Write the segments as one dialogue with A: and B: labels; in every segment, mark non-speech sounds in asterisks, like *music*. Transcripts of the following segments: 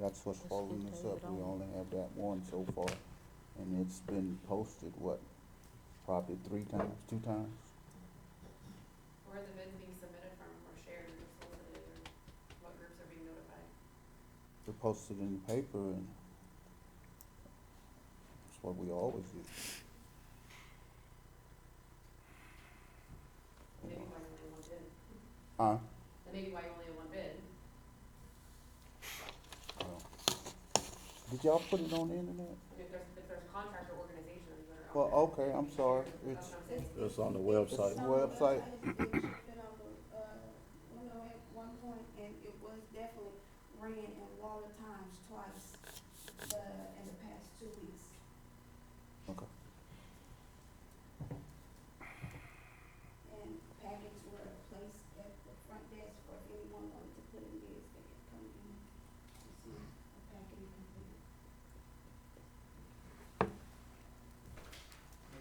A: That's what's
B: This
A: holding
B: can
A: us
B: take
A: up.
B: it
A: We
B: on.
A: only have that one so far, and it's been posted, what, probably three times, two times?
C: Where are the bids being submitted from or shared or solicited or what groups are being notified?
A: They're posted in the paper, and that's what we always do.
C: Maybe why you only have
A: Huh?
C: one bid. That may be why you only have one bid.
A: Well, Oh. Did y'all put it on the internet?
C: If there's, if there's contractor organizations that are out
A: Well,
C: there.
A: okay, I'm sorry.
C: That's
A: It's,
C: what I'm saying.
D: It's on the website.
A: It's- website.
E: It should fit on the, uh, window at one point, and it was definitely ran in Waller Times twice, uh, in the past two weeks.
A: Okay.
E: And packets were placed at the front desk for anyone wanting to put in bids, they could come in and see a packet complete.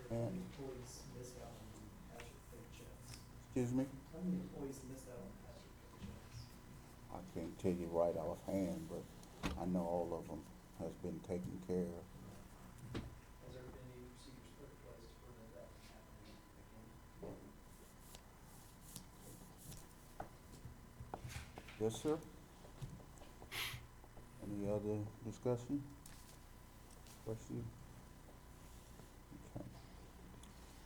F: How
A: Yeah.
F: many employees missed out on hazard pay checks?
A: excuse me?
F: How many employees missed out on hazard pay checks?
A: I can't tell you right offhand, but I know all of them has been taken care of.
F: uh, Has there been any procedures put in place to prevent that from happening again?
A: Yes, sir. Any other discussion? Question? Okay.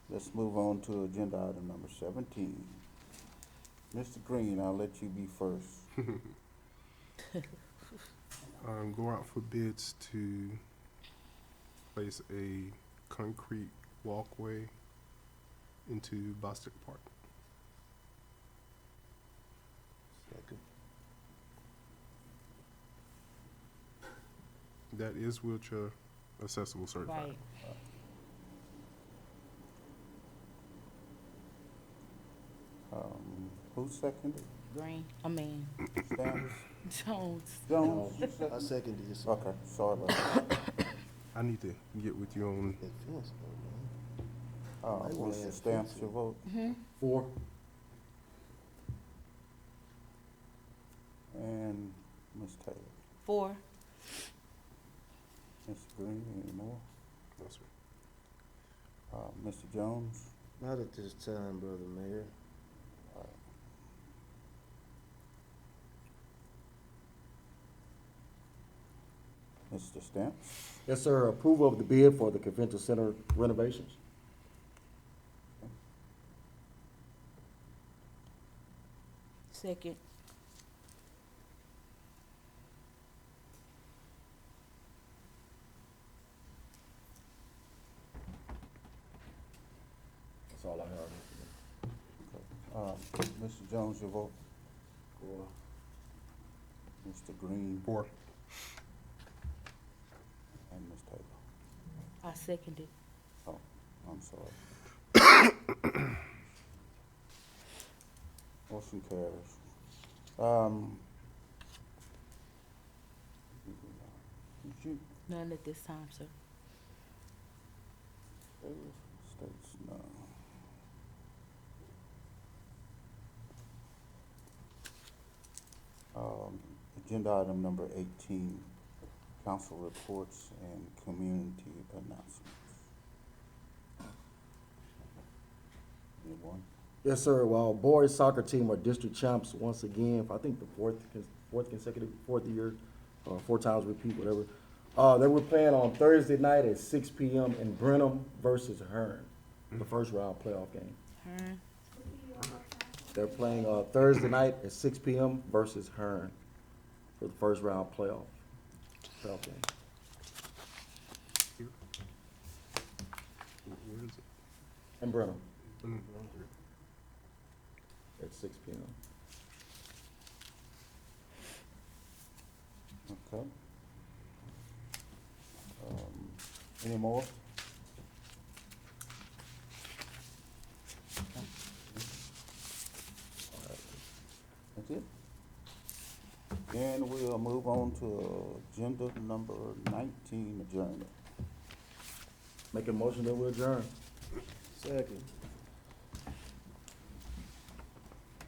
A: Let's move on to agenda item number seventeen. Mr. Green, I'll let you be first.
G: um, go out for bids to place a concrete walkway into Bostic Park. That is wheelchair accessible certified.
B: Right.
A: Um, who seconded?
B: Green. I mean,
A: Stamps?
B: *laughs* Jones.
A: Jones, you
D: I
A: seconded?
D: second this.
A: Okay, sorry about that.
G: I need to get with you on
A: Uh, Mr. Stamps, your vote.
B: Mm-hmm.
D: Four.
A: And Ms. Taylor.
B: Four.
A: Mr. Green, any more?
G: no, sir.
A: Uh, Mr. Jones?
D: Not at this time, brother mayor.
A: Mr. Stamps?
H: Yes, sir. Approval of the bid for the convention center renovations.
B: Second.
H: That's all I have.
A: Uh, Mr. Jones, your vote? Four. Mr. Green?
G: Four.
A: And Ms. Taylor?
B: I seconded.
A: I'm sorry. Motion carries. Um. Did you,
B: None at this time, sir.
A: States, no. Um, agenda item number eighteen, council reports and community announcements. Anyone?
H: Yes, sir. While boys soccer team are district champs once again, I think the fourth, cons- fourth consecutive, fourth year, or four times repeat, whatever. Uh, they were playing on Thursday night at six P M in Brenham versus Hearn, the first round playoff game.
B: Hearn.
H: They're playing, uh, Thursday night at six P M versus Hearn for the first round playoff, playoff game.
G: Wh- Where is it?
H: In Brenham
G: Mm.
H: at six P M.
A: Okay. Um, Any more? That's it? Then we'll move on to agenda number nineteen, adjournment.
H: Make a motion that we adjourn.
D: Second.